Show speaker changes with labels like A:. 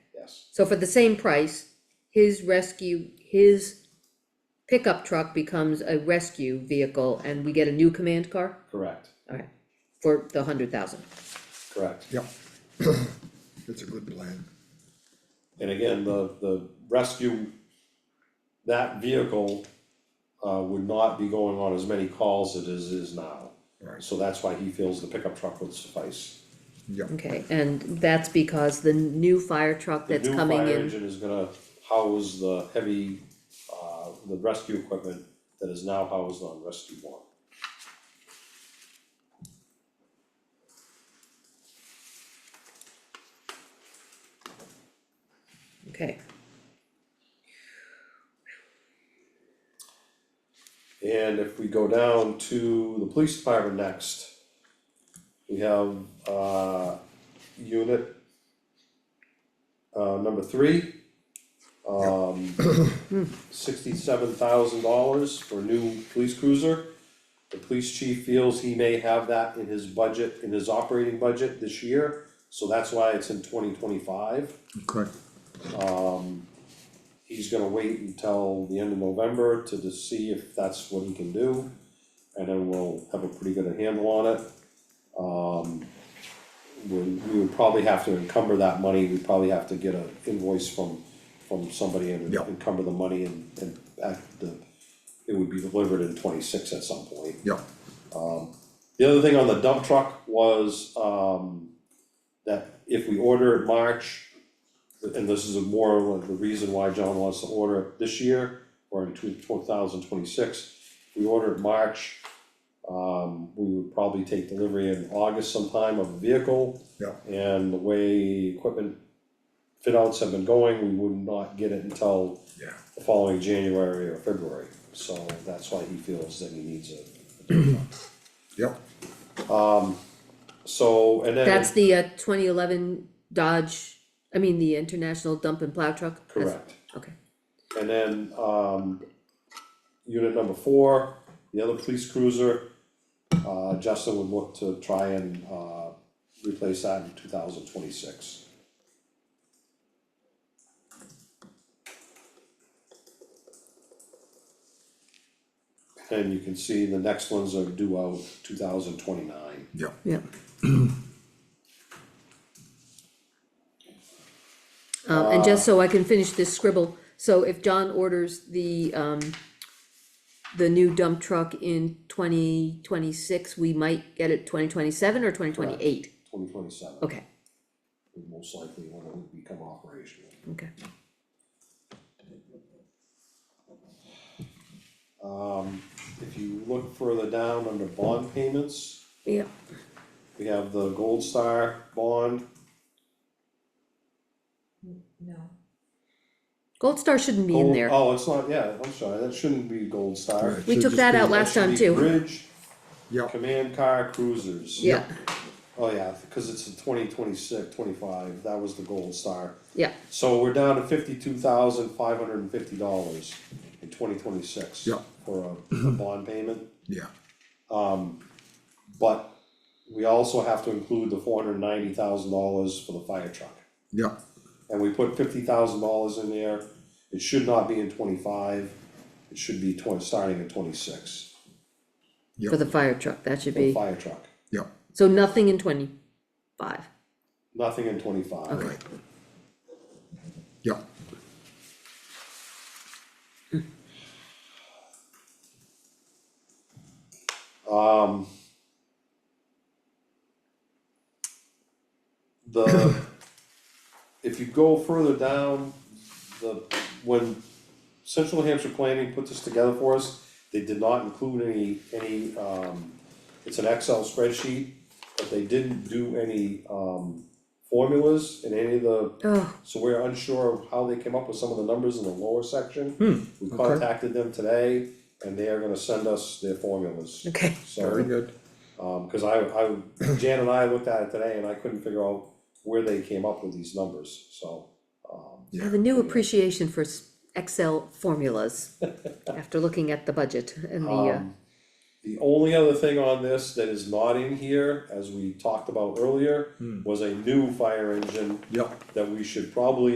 A: yes,
B: So for the same price, his rescue, his pickup truck becomes a rescue vehicle and we get a new command car?
A: correct,
B: Alright, for the hundred thousand.
A: correct.
C: Yep. It's a good plan.
A: And again, the, the rescue, that vehicle, uh, would not be going on as many calls as it is, is now.
C: Right.
A: So that's why he feels the pickup truck would suffice.
C: Yep,
B: Okay, and that's because the new fire truck that's coming
A: The new fire
B: in,
A: engine is gonna house the heavy, uh, the rescue equipment that is now housed on rescue one.
B: okay,
A: And if we go down to the police department next, we have, uh, unit, uh, number three, um, sixty-seven thousand dollars for a new police cruiser. The police chief feels he may have that in his budget, in his operating budget this year, so that's why it's in twenty twenty-five.
C: okay,
A: He's gonna wait until the end of November to just see if that's what he can do, and then we'll have a pretty good handle on it. Um, we, we would probably have to encumber that money, we'd probably have to get a invoice from, from somebody and
C: Yeah.
A: encumber the money and, and at the, it would be delivered in twenty-six at some point. Um,
C: yep,
A: The other thing on the dump truck was, um, that if we order it March, and this is more of the reason why John wants to order it this year, or in two, two thousand twenty-six, we order it March, um, we would probably take delivery in August sometime of a vehicle,
C: yep,
A: and the way equipment fit outs have been going, we would not get it until
C: yeah,
A: the following January or February, so that's why he feels that he needs it.
C: yep,
A: So, and then.
B: that's the uh twenty eleven Dodge, I mean, the International Dump and Plow Truck? That's-
A: Correct.
B: Okay,
A: And then, um, unit number four, the other police cruiser, uh, Justin would look to try and, uh, replace that in two thousand twenty-six. And you can see the next ones are due out two thousand twenty-nine.
C: yep,
B: yeah. Um, and just so I can finish this scribble, so if John orders the, um, the new dump truck in twenty twenty-six, we might get it twenty twenty-seven or twenty twenty-eight?
A: Twenty twenty-seven.
B: Okay,
A: Most likely when it would become operational.
B: okay,
A: Um, if you look further down under bond payments,
B: yeah,
A: we have the Gold Star bond,
D: No,
B: Gold Star shouldn't be in
A: Gold-
B: there.
A: Oh, it's not, yeah, I'm sorry, that shouldn't be Gold Star.
C: Right.
B: We
C: Should
B: took
C: just
B: that
C: be-
B: out
C: that
B: last
A: That
B: time
A: should
B: too.
A: be Bridge,
C: yep,
A: command car cruisers.
B: Yeah,
A: Oh, yeah, cause it's a 2026, 25. that was the Gold Star.
B: yeah,
A: So we're down to fifty-two thousand five hundred and fifty dollars in twenty twenty-six.
C: Yeah.
A: For a, a bond payment,
C: yeah,
A: but we also have to include the four hundred and ninety thousand dollars for the fire truck.
C: yep,
A: and we put fifty thousand dollars in there. It should not be in twenty-five, it should be twen- starting at twenty-six,
B: for the fire truck, that should
A: for the
B: be,
A: fire truck,
C: yep,
B: so nothing in twenty-five.
A: nothing in twenty-five.
C: right. Yep,
A: Um. The, if you go further down, the, when Central New Hampshire Planning put this together for us, they did not include any, any, um, it's an Excel spreadsheet, but they didn't do any, um, formulas in any of the
B: Oh,
A: So we're unsure of how they came up with some of the numbers in the lower section.
C: Hmm,
A: We contacted them today and they are gonna send us their formulas.
B: okay,
A: So,
C: very good,
A: um, cause I, I, Jan and I looked at it today and I couldn't figure out where they came up with these numbers, so. um,
B: I have a new appreciation for s- Excel formulas after looking at the budget and the, uh,
A: Um, The only other thing on this that is not in here,
C: Hmm.
A: as we talked about earlier, was a new fire engine
C: yep.
A: that we should probably